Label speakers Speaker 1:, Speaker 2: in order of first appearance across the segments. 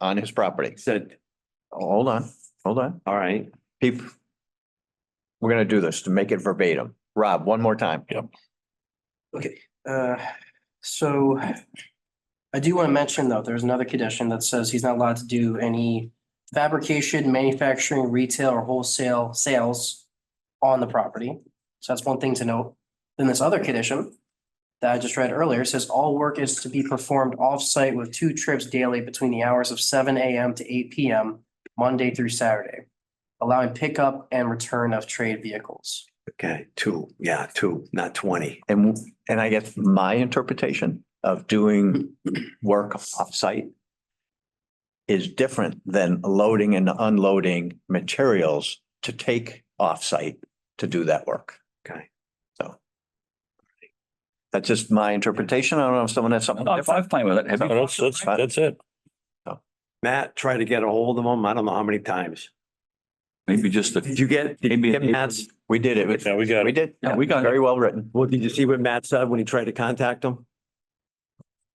Speaker 1: on his property.
Speaker 2: Said,
Speaker 1: Hold on, hold on.
Speaker 2: all right,
Speaker 1: People. We're gonna do this to make it verbatim. Rob, one more time. Yep.
Speaker 3: Okay, uh, so I do want to mention though, there's another condition that says he's not allowed to do any fabrication, manufacturing, retail or wholesale sales on the property. So that's one thing to note. Then this other condition that I just read earlier says all work is to be performed off-site with two trips daily between the hours of seven AM to eight PM, Monday through Saturday, allowing pickup and return of trade vehicles.
Speaker 2: okay, two, yeah, two, not twenty.
Speaker 1: And, and I guess my interpretation of doing work offsite is different than loading and unloading materials to take offsite to do that work.
Speaker 2: Okay.
Speaker 1: So. That's just my interpretation. I don't know if someone has something
Speaker 4: I'm,
Speaker 1: different.
Speaker 4: I'm fine with it. Have
Speaker 5: No,
Speaker 4: you?
Speaker 5: That's, that's, that's it.
Speaker 2: Matt tried to get a hold of him, I don't know how many times.
Speaker 4: Maybe just a
Speaker 2: Did
Speaker 4: few.
Speaker 2: you get, did
Speaker 4: Maybe
Speaker 2: you
Speaker 4: an
Speaker 2: get
Speaker 4: April-
Speaker 2: Matt's,
Speaker 1: We did it.
Speaker 5: Yeah, we got
Speaker 1: We
Speaker 5: it.
Speaker 1: did.
Speaker 4: Yeah, we got it.
Speaker 1: Very well written.
Speaker 2: well, did you see what Matt said when he tried to contact him?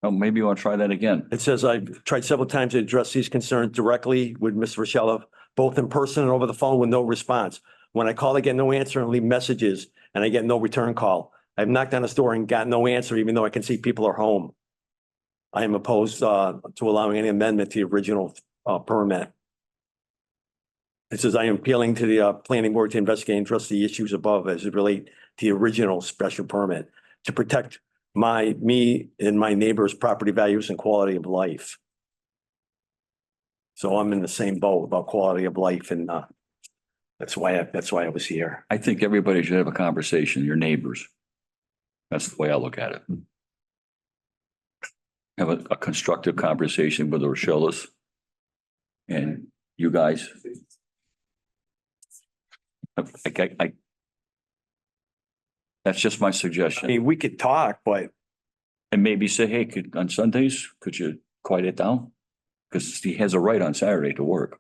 Speaker 4: Oh, maybe you want to try that again.
Speaker 2: It says, I've tried several times to address these concerns directly with Ms. Rochella, both in person and over the phone with no response. When I call, I get no answer and leave messages and I get no return call. I've knocked on his door and got no answer, even though I can see people are home. I am opposed uh, to allowing any amendment to the original uh, permit. It says, I am appealing to the uh, planning board to investigate and address the issues above as it relate to the original special permit to protect my, me and my neighbor's property values and quality of life. So I'm in the same boat about quality of life and, uh, that's why, I that's why I was here.
Speaker 4: I think everybody should have a conversation, your neighbors. That's the way I look at it. Have a, a constructive conversation with the Rochellas. And you guys. I, I- I- That's just my
Speaker 2: I
Speaker 4: suggestion.
Speaker 2: mean, we could talk, but
Speaker 4: And maybe say, hey, could, on Sundays, could you quiet it down? Because he has a right on Saturday to work.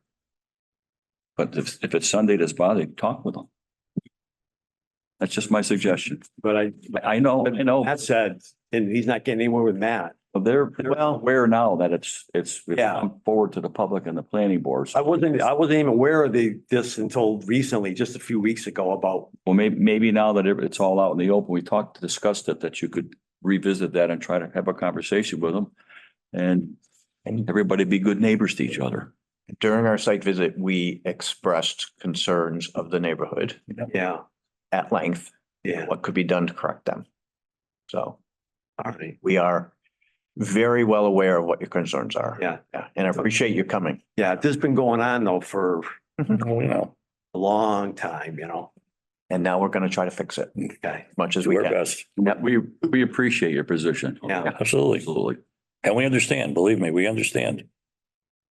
Speaker 4: But if, if it's Sunday that's bothering, talk with him. That's just my suggestion.
Speaker 2: but I,
Speaker 4: I I know, I know,
Speaker 2: Matt said, and he's not getting anywhere with Matt.
Speaker 4: they're, well, aware now that it's, it's, it's
Speaker 2: Yeah.
Speaker 4: come forward to the public and the planning boards.
Speaker 2: I wasn't, I wasn't even aware of the, this until recently, just a few weeks ago about,
Speaker 4: Well, maybe, maybe now that it- it's all out in the open, we talked, discussed it, that you could revisit that and try to have a conversation with them. And everybody be good neighbors to each other.
Speaker 1: During our site visit, we expressed concerns of the neighborhood
Speaker 2: yeah,
Speaker 1: at length,
Speaker 2: yeah,
Speaker 1: what could be done to correct them. So
Speaker 2: all right.
Speaker 1: we are very well aware of what your concerns are.
Speaker 2: Yeah.
Speaker 1: And I appreciate you coming.
Speaker 2: Yeah, this has been going on though for
Speaker 5: Oh, you know,
Speaker 2: a long time, you know,
Speaker 1: And now we're going to try to fix it as
Speaker 2: okay,
Speaker 1: much as
Speaker 5: do
Speaker 1: we
Speaker 5: our
Speaker 1: can.
Speaker 5: best.
Speaker 4: We, we appreciate your position.
Speaker 2: yeah,
Speaker 5: Absolutely.
Speaker 4: Absolutely.
Speaker 5: And we understand, believe me, we understand.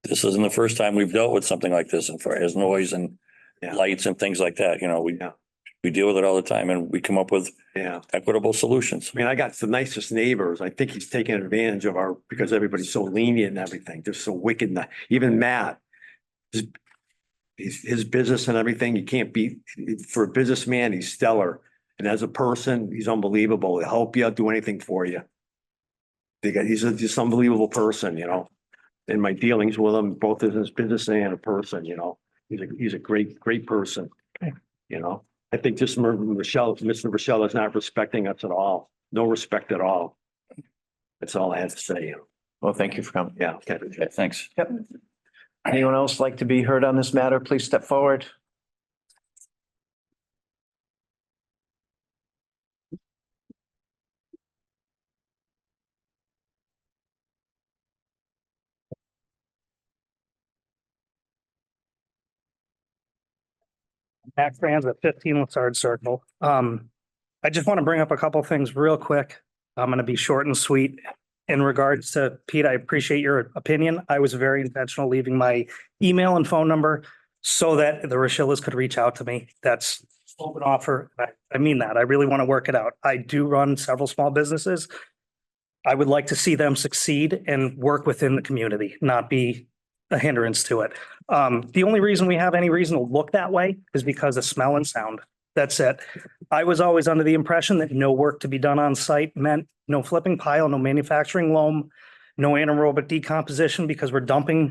Speaker 5: This isn't the first time we've dealt with something like this and far as noise and
Speaker 2: Yeah.
Speaker 5: lights and things like that, you know, we
Speaker 2: Yeah.
Speaker 5: we deal with it all the time and we come up with
Speaker 2: yeah.
Speaker 5: equitable solutions.
Speaker 2: I mean, I got the nicest neighbors. I think he's taking advantage of our, because everybody's so lenient and everything. They're so wicked. and- Even Matt. His, his- his business and everything, you can't beat, for a businessman, he's stellar. And as a person, he's unbelievable. He'll help you out, do anything for you. They got, he's a- just unbelievable person, you know? In my dealings with him, both as his business and a person, you know? He's a, he's a great, great person. You know? I think just Mer- Michelle, Mr. Michelle is not respecting us at all. No respect at all. That's all I have to say.
Speaker 1: Well, thank you for coming.
Speaker 2: Yeah. okay.
Speaker 4: Thanks.
Speaker 1: Anyone else like to be heard on this matter? Please step forward.
Speaker 6: Matt Franz at fifteen Lassard Circle. Um, I just want to bring up a couple things real quick. I'm going to be short and sweet. In regards to Pete, I appreciate your opinion. I was very intentional leaving my email and phone number so that the Rochillas could reach out to me. That's open offer. I, I mean that. I really want to work it out. I do run several small businesses. I would like to see them succeed and work within the community, not be a hindrance to it. Um, the only reason we have any reason to look that way is because of smell and sound. That's it. I was always under the impression that no work to be done on site meant no flipping pile, no manufacturing loam, no anaerobic decomposition because we're dumping